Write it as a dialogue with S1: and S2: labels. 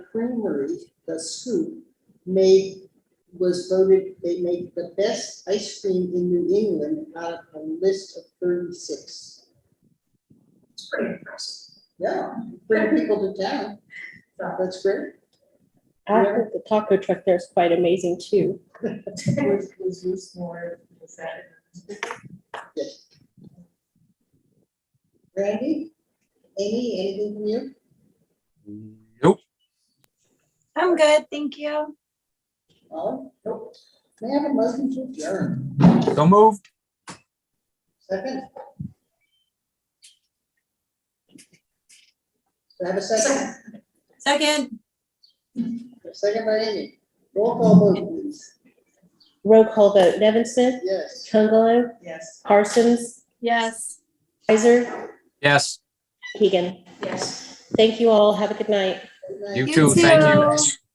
S1: Creamery, the scoop, made, was voted, they make the best ice cream in New England out of a list of thirty-six.
S2: It's pretty impressive.
S1: Yeah, bring people to town. That's great.
S3: I heard the taco truck there is quite amazing too.
S4: Was, was this more, was that?
S1: Randy, Amy, anything from you?
S5: Nope.
S6: I'm good, thank you.
S1: All? Nope. May I have a motion to adjourn?
S5: So moved.
S1: Second? Do I have a second?
S6: Second,
S1: A Second by Amy. Roll call vote, please.
S3: Roll call vote, Nevin Smith,
S1: Yes.
S3: Chungalo,
S4: Yes.
S3: Parsons,
S6: yes.
S3: Kaiser,
S5: Yes,
S3: Keegan.
S4: Yes.
S3: Thank you all. Have a good night.
S1: Good night.
S5: you
S6: You
S5: too. Thank you.
S6: too.